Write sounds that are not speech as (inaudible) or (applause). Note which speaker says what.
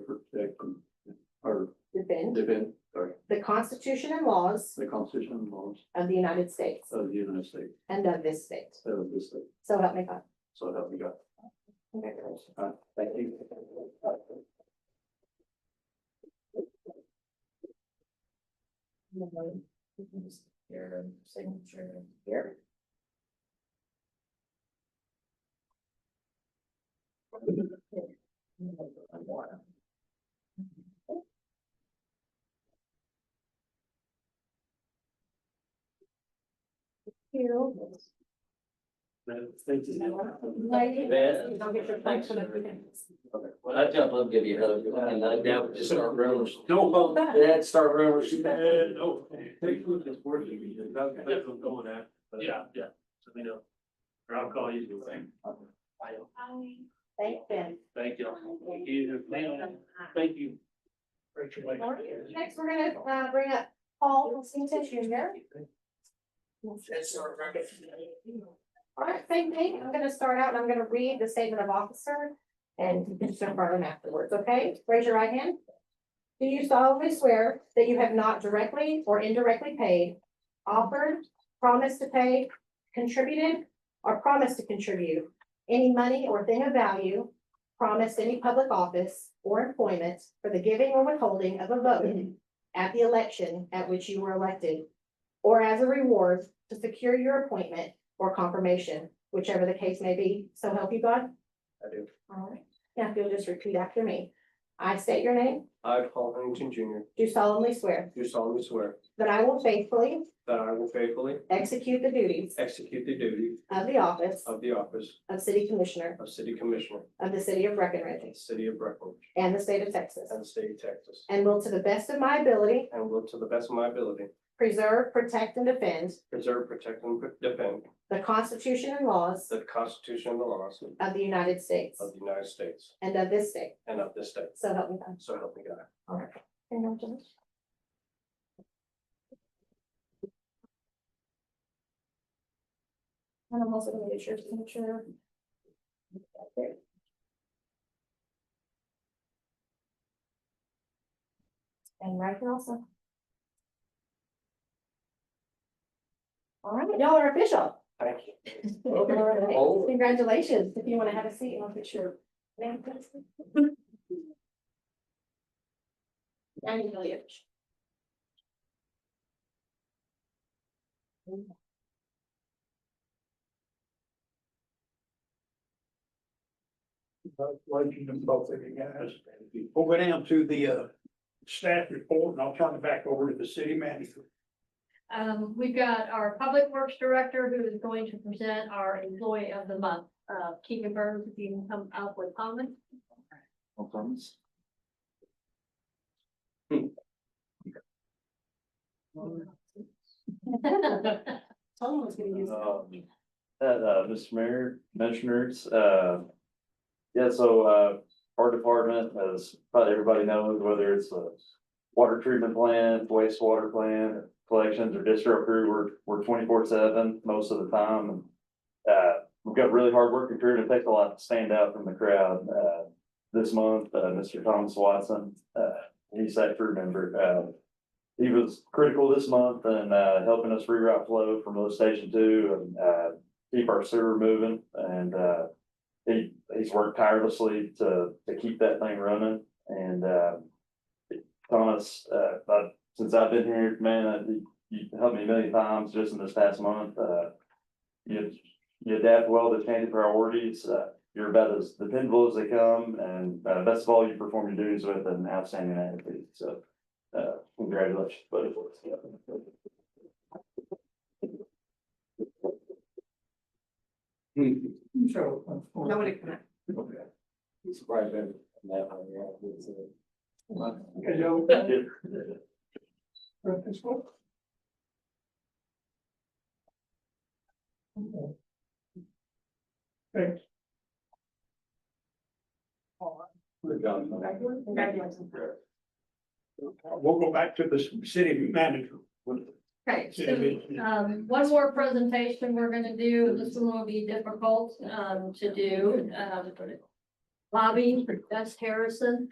Speaker 1: protect and, or
Speaker 2: defend
Speaker 1: defend, sorry,
Speaker 2: the Constitution and laws
Speaker 1: the Constitution and laws
Speaker 2: of the United States
Speaker 1: of the United States,
Speaker 2: and of this state.
Speaker 1: of this state,
Speaker 2: So help me God.
Speaker 1: so help me God.
Speaker 2: Congratulations.
Speaker 1: Uh, thank you.
Speaker 3: Your signature here. One more. You.
Speaker 1: Thank
Speaker 3: Ben.
Speaker 2: Don't get your thanks for the
Speaker 3: When I jump up, give you another, one, and I doubt we just start rumors.
Speaker 1: No, well,
Speaker 3: Yeah, start rumors.
Speaker 1: Yeah, no, take food that's working, that's that's what I'm going at. but-
Speaker 4: Yeah, yeah.
Speaker 1: So they know. Or I'll call you.
Speaker 2: Thank Ben.
Speaker 4: Thank you. Thank you. Thank you.
Speaker 2: Next, we're gonna uh bring up Paul Constantin Junior. All right, same thing. I'm gonna start out and I'm gonna read the statement of officer and you can jump right in afterwards, okay? Raise your right hand. Do you solemnly swear that you have not directly or indirectly paid, offered, promised to pay, contributed, or promised to contribute any money or thing of value, promised any public office or employment for the giving or withholding of a vote at the election at which you were elected, or as a reward to secure your appointment or confirmation, whichever the case may be. So help you God?
Speaker 3: I do.
Speaker 2: All right. Now, if you'll just repeat after me. I state your name,
Speaker 3: I, Paul Huntington Junior,
Speaker 2: do solemnly swear
Speaker 3: do solemnly swear
Speaker 2: that I will faithfully
Speaker 3: that I will faithfully
Speaker 2: execute the duties
Speaker 3: execute the duty
Speaker 2: of the office
Speaker 3: of the office
Speaker 2: of City Commissioner
Speaker 3: of City Commissioner
Speaker 2: of the City of
Speaker 3: in
Speaker 2: Breckenridge
Speaker 3: the City of Breckenridge
Speaker 2: and the State of Texas,
Speaker 3: and the State of Texas,
Speaker 2: and will to the best of my ability
Speaker 3: and will to the best of my ability
Speaker 2: preserve, protect, and defend
Speaker 3: preserve, protect, and defend
Speaker 2: the Constitution and laws
Speaker 3: the Constitution and the laws
Speaker 2: of the United States
Speaker 3: of the United States
Speaker 2: and of this state.
Speaker 3: and of this state.
Speaker 2: So help me God.
Speaker 3: So help me God.
Speaker 2: Congratulations. And I'm also gonna get your signature. There. And right here also. All right, y'all are official.
Speaker 3: Thank you.
Speaker 2: All right,
Speaker 3: Oh.
Speaker 2: Congratulations. If you wanna have a seat, I'll put your name. please. I'm really official.
Speaker 4: Congratulations to both of you guys. We'll go down to the uh staff report and I'll turn it back over to the city manager.
Speaker 5: Um, we've got our Public Works Director who is going to present our Employee of the Month. Uh, Keegan Burns, if you can come up with comments. (laughs)
Speaker 1: No comments?
Speaker 2: Someone was gonna use that.
Speaker 6: Um, Uh, uh, Mr. Mayor, Commissioners, uh. Yeah, so, uh, our department, as probably everybody knows, whether it's a water treatment plant, wastewater plant, collections or district crew, we're, we're twenty-four seven most of the time. and, Uh, we've got really hard working crew and it takes a lot to stand out from the crowd. Uh, this month, uh, Mr. Thomas Watson, uh, he's that crew member, uh, he was critical this month and uh helping us reroute flow from lift station two and uh keep our sewer moving and uh. He he's worked tirelessly to to keep that thing running and uh. Thomas, uh, but since I've been here, man, I- you you helped me a million times just in this past month, uh. You you adapt well to changing priorities, uh, you're about as dependable as they come and uh best of all, you perform your duties with an outstanding attitude, so. Uh, congratulations, buddy.
Speaker 4: So.
Speaker 2: Nobody can.
Speaker 3: Surprised that that one, yeah, it's, uh,
Speaker 4: Hello. This one? Thanks.
Speaker 3: Good job.
Speaker 2: Congratulations.
Speaker 4: We'll go back to the city manager.
Speaker 5: Okay, so, um, one more presentation we're gonna do, this one will be difficult, um, to do, um. Bobby, that's Harrison,